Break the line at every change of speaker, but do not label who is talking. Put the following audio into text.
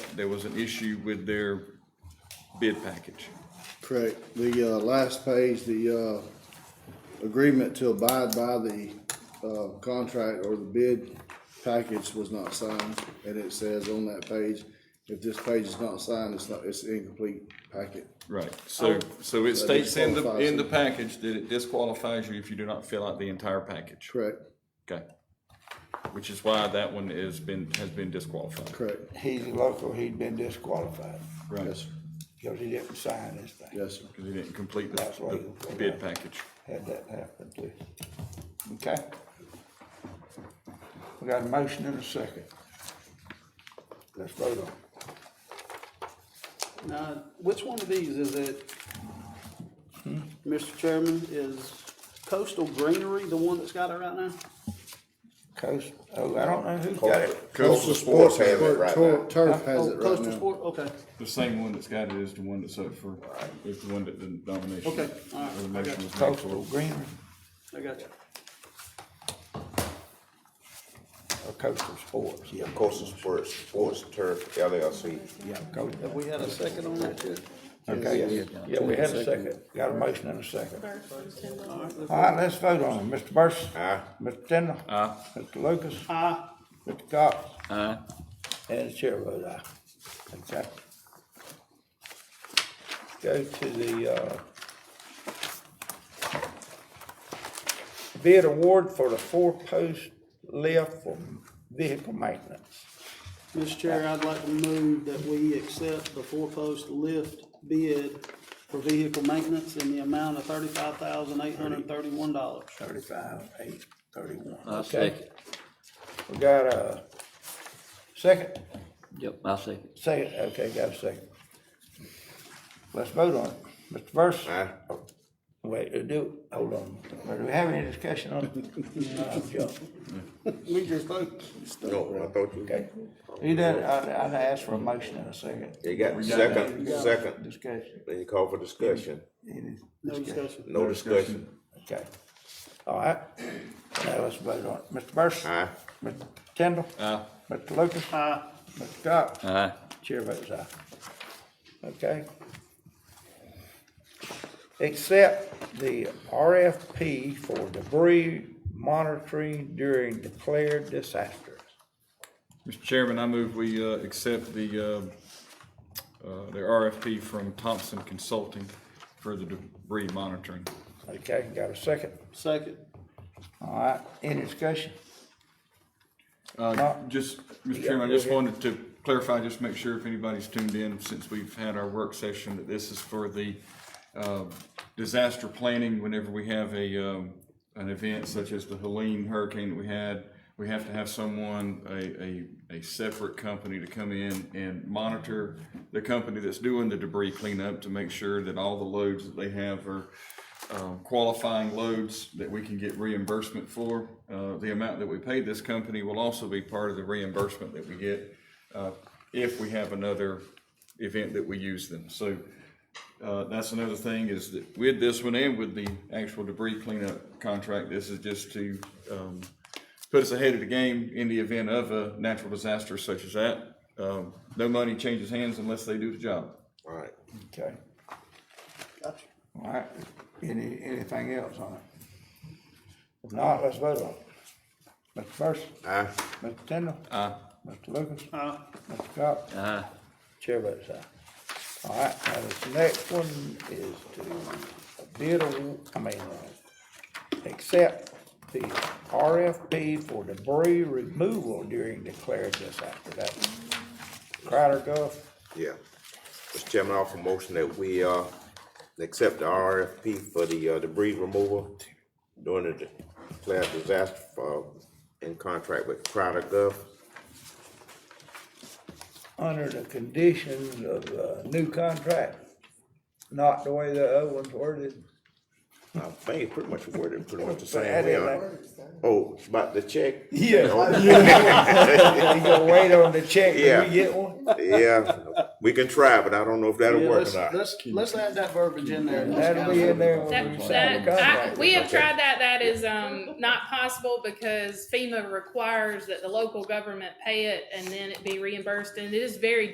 there was an issue with their bid package.
Correct. The, uh, last page, the, uh, agreement to abide by the, uh, contract or the bid package was not signed. And it says on that page, if this page is not signed, it's not, it's incomplete packet.
Right, so, so it
So
states in the,
disqualifies
in the
you.
package that it disqualifies you if you do not fill out the entire package.
Correct,
Okay. Which is why that one has been, has been disqualified.
correct.
He's local, he'd been disqualified
Right,
Yes, sir.
because he didn't sign this thing.
Yes, sir.
because he didn't complete the,
That's why you-
the bid package.
Had that happen too. Okay. We got a motion and a second. Let's vote on it.
Now, which one of these is it? Mr. Chairman, is Coastal Greenery the one that's got it right now?
Coast, oh, I don't know who's got it.
Coastal Sports has it right now. Turf has
Oh,
it right
Coastal
now.
Sport, okay,
The same one that's got it is the one that's up for, is the one that the nomination.
Okay, all right,
or the motion was
okay.
made for.
Coastal Greenery
I got you.
or Coastal Sports?
Yeah, Coastal Sports, Sports Turf LLC.
Yeah, Coastal.
Have we had a second on that yet?
Okay, yeah, we had a second. Got a motion and a second.
versus ten dollars.
All right, let's vote on it. Mr. Burson.
Aye.
Mr. Tindall.
Aye.
Mr. Lucas.
Aye.
Mr. Cox.
Aye.
And the chair votes aye. Okay. Go to the, uh, bid award for the four-post lift for vehicle maintenance.
Mr. Chair, I'd like to move that we accept the four-post lift bid for vehicle maintenance in the amount of thirty-five thousand, eight hundred and thirty-one dollars.
Thirty-five, eight, thirty-one.
I
Okay.
second.
We got a second?
Yep, I second.
Second, okay, got a second. Let's vote on it. Mr. Burson?
Aye.
Oh, Wait, uh, do, hold on. Do we have any discussion on it? Uh, Joe,
We just vote.
No, I thought you.
Okay. He did, I, I asked for a motion in a second.
You got second,
You got
second,
Discussion.
then you call for discussion,
Any
No discussion.
no discussion.
Okay. All right. Now let's vote on it. Mr. Burson?
Aye.
Mr. Kendall?
Aye.
Mr. Lucas?
Aye.
Mr. Cox?
Aye.
Chair votes aye. Okay. Accept the RFP for debris monitoring during declared disasters.
Mr. Chairman, I move we, uh, accept the, uh, uh, the RFP from Thompson Consulting for the debris monitoring.
Okay, got a second?
Second.
All right, any discussion?
Uh,
Uh,
just, Mr.
yeah,
Chairman, I
go
just
ahead.
wanted to clarify, just make sure if anybody's tuned in, since we've had our work session, that this is for the, uh, disaster planning, whenever we have a, um, an event such as the Helene hurricane that we had, we have to have someone, a, a, a separate company to come in and monitor the company that's doing the debris cleanup to make sure that all the loads that they have are, um, qualifying loads that we can get reimbursement for. Uh, The amount that we pay this company will also be part of the reimbursement that we get uh, if we have another event that we use them. So uh, that's another thing is that with this one and with the actual debris cleanup contract, this is just to um, put us ahead of the game in the event of a natural disaster such as that. Um, No money changes hands unless they do the job.
All right.
Okay,
Gotcha.
all right, any, anything else on it? If not, let's vote on it. Mr. Burson?
Aye.
Mr. Tindall?
Aye.
Mr. Lucas?
Aye.
Mr. Cox?
Aye.
Chair votes aye. All right, now this next one is to bid, awa- I mean, uh, accept the RFP for debris removal during declared disaster. That's Crowder Gulf.
Yeah. Mr. Chairman, I offer a motion that we, uh, accept the RFP for the uh, debris removal during the declared disaster for, in contract with Crowder Gulf.
under the conditions of the new contract, not the way the other ones worded.
I think pretty much worded pretty much the same
Add
way.
it
uh, Oh, it's about the check?
Yeah. You gonna wait on the check till
Yeah.
we get one?
Yeah, we can try, but I don't know if that'll
Yeah,
work or
let's,
not.
let's, let's add that verbiage in there.
That'll be in there when
That,
we sign the
that, I,
contract.
we have tried that, that is, um, not possible because FEMA requires that the local government pay it and then it be reimbursed, and it is very